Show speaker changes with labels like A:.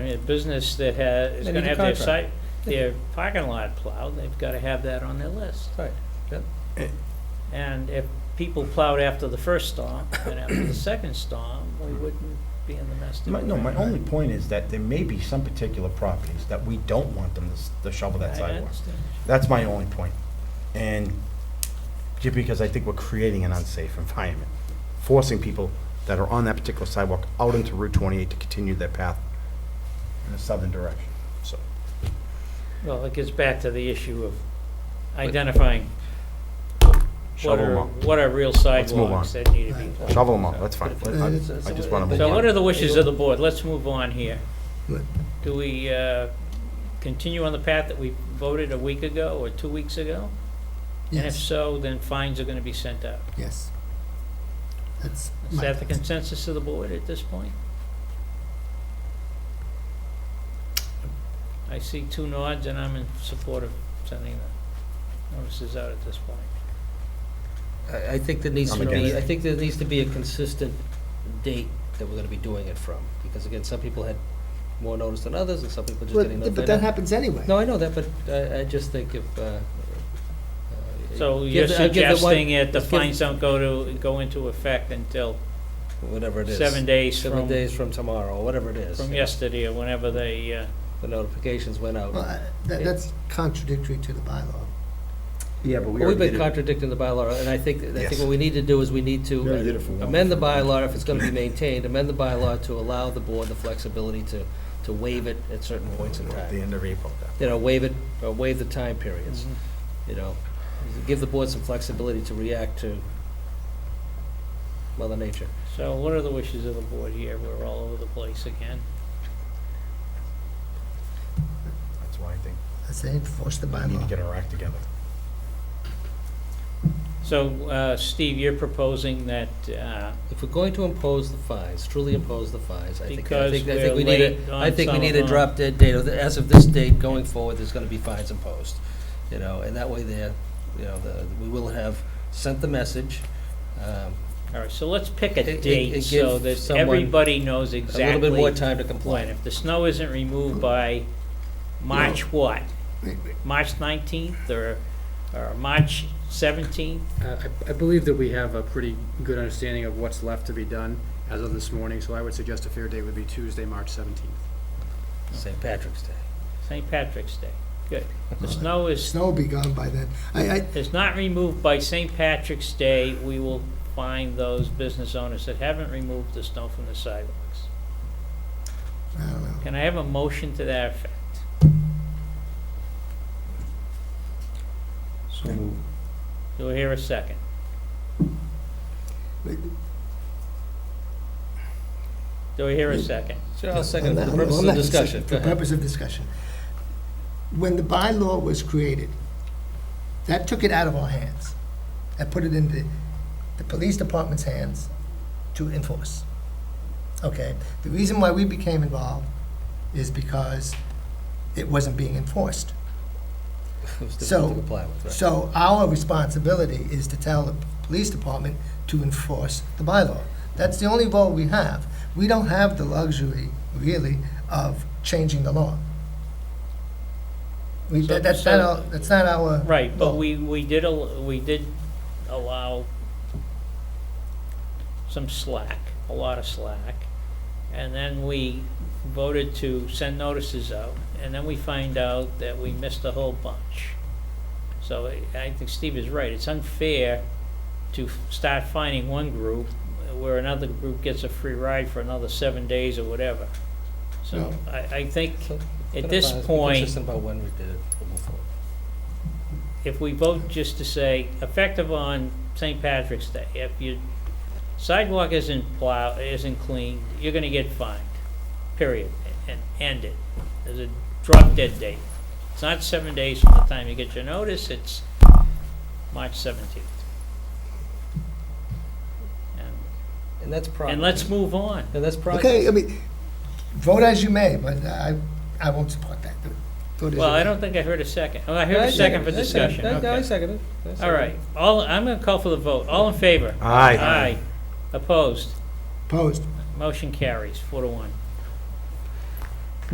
A: mean, a business that has, is
B: They
A: gonna
B: need a
A: have their site,
B: contract.
A: their parking lot plowed, they've gotta have that on their list.
B: Right, yep.
A: And if people plowed after the first storm and after the second storm, we wouldn't be in the mess that
C: My,
A: we're
C: no, my
A: in.
C: only point is that there may be some particular properties that we don't want them to s- to shovel
A: I
C: that sidewalk.
A: understand.
C: That's my only point. And just because I think we're creating an unsafe environment, forcing people that are on that particular sidewalk out into Route 28 to continue their path in a southern direction, so.
A: Well, it gets back to the issue of identifying what
C: Shovel them
A: are,
C: out.
A: what are real
C: move on.
A: sidewalks that need to be plowed.
C: Shovel them out, that's fine. I
D: uh,
C: I just want to move
A: So what are
C: on.
A: the wishes of the board? Let's move on here.
E: Right.
A: Do we uh, continue on the path that we voted a week ago or two weeks ago? And if
E: Yes,
A: so, then fines are going to be sent out.
E: yes. That's
A: Is
E: my
A: that the
E: thoughts.
A: consensus of the board at this point? I see two nods, and I'm in support of sending the notices out at this point.
D: I, I think there needs
C: I'm
D: to
C: against
D: be,
C: it.
D: I think there needs to be a consistent date that we're gonna be doing it from, because again, some people had more notice than others, and some people just getting
E: But,
D: notified.
E: but that happens anyway.
D: No, I know that, but I, I just think if, uh. uh,
A: So
D: give
A: you're
D: the- uh, give the one-
A: suggesting that the
D: let's give-
A: fines don't go to, go into effect until
D: Whatever it is.
A: seven days
D: Seven
A: from,
D: days from tomorrow, or whatever it is.
A: from
D: you know,
A: yesterday, or whenever they, uh,
D: The notifications went out.
E: Well, I- that, that's contradictory to the bylaw.
C: Yeah, but
D: Well, We've been contradicting the bylaw, and I think, I
C: Yes.
D: think what we need to do is we need
C: We already did it for
D: to
C: one.
D: amend the bylaw, if it's gonna be maintained, amend the bylaw to allow the board the flexibility to, to waive it at certain points in
C: At the
D: time.
C: end of April.
D: You know, waive it, or waive the time periods, you know, give the board some flexibility to react to mother nature.
A: so what are the wishes of the board here? We're all over the place again.
C: That's why I think
E: I say enforce the
C: we need to
E: bylaw.
C: get our act together.
A: So, uh, Steve, you're proposing that, uh,
D: If we're going to impose the fines, truly impose the fines, I think, I
A: Because
D: think, I
A: we're
D: think we need
A: late
D: a,
A: on
D: I think we
A: some
D: need
A: of
D: a
A: them.
D: drop dead date, of the- as of this date going forward, there's gonna be fines imposed. You know, and that way there, you know, the, we will have sent the message, um,
A: all right, so let's pick
D: It-
A: a
D: it-
A: date
D: it
A: so
D: gives
A: that
D: someone
A: everybody knows
D: a little bit more
A: exactly
D: time Hmm. to
A: when.
D: comply.
A: If the snow isn't removed by March what? March 19th or, or March 17th?
F: Uh, I I believe that we have a pretty good understanding of what's left to be done as of this morning, so I would suggest a fair date would be Tuesday, March 17th.
D: St. Patrick's Day.
A: St. Patrick's Day. Good. The snow is,
E: Snow will be gone by then. I, I,
A: is not removed by St. Patrick's Day, we will find those business owners that haven't removed the snow from the sidewalks.
E: I don't know.
A: Can I have a motion to that effect? Do we hear a second? Do we hear a second?
D: Sure, I'll second that,
E: I'm
D: for
E: not-
D: purpose
E: I'm
D: of
E: not-
D: discussion, go
E: For
D: ahead.
E: purpose of discussion. When the bylaw was created, that took it out of our hands and put it in the, the police department's hands to enforce. Okay? The reason why we became involved is because it wasn't being enforced.
D: It was
E: So-
D: difficult to comply with, right.
E: So our responsibility is to tell the police department to enforce the bylaw. That's the only role we have. We don't have the luxury, really, of changing the law. We, that- that's not our, that's not our.
A: Right, but
E: law.
A: we, we did, al- we did allow some slack, a lot of slack. And then we voted to send notices out, and then we find out that we missed a whole bunch. So I- I think Steve is right. It's unfair to f- start finding one group where another group gets a free ride for another seven days or whatever. So I, I think
D: So,
A: at
D: But
A: this
D: fine, let's be
A: point,
D: Consistent about when we did it, we'll move forward.
A: if we vote just to say effective on St. Patrick's Day, if your sidewalk isn't plowed, isn't cleaned, you're gonna get fined, period, and end it. There's a drop dead date. It's not seven days from the time you get your notice, it's March seventeenth.
D: And that's probably.
A: And let's move on.
D: And that's probably.
E: Okay, I mean, vote as you may, but I, I won't support that. Vote as you
A: Well, I
E: may.
A: don't think I heard a second. Oh, I heard a second for discussion,
D: I
A: okay.
D: second it. I second
A: All
D: it.
A: right, all, I'm gonna call for the vote. All in favor?
C: Aye.
A: Aye. Opposed?
E: Opposed.
A: Motion carries, four to one.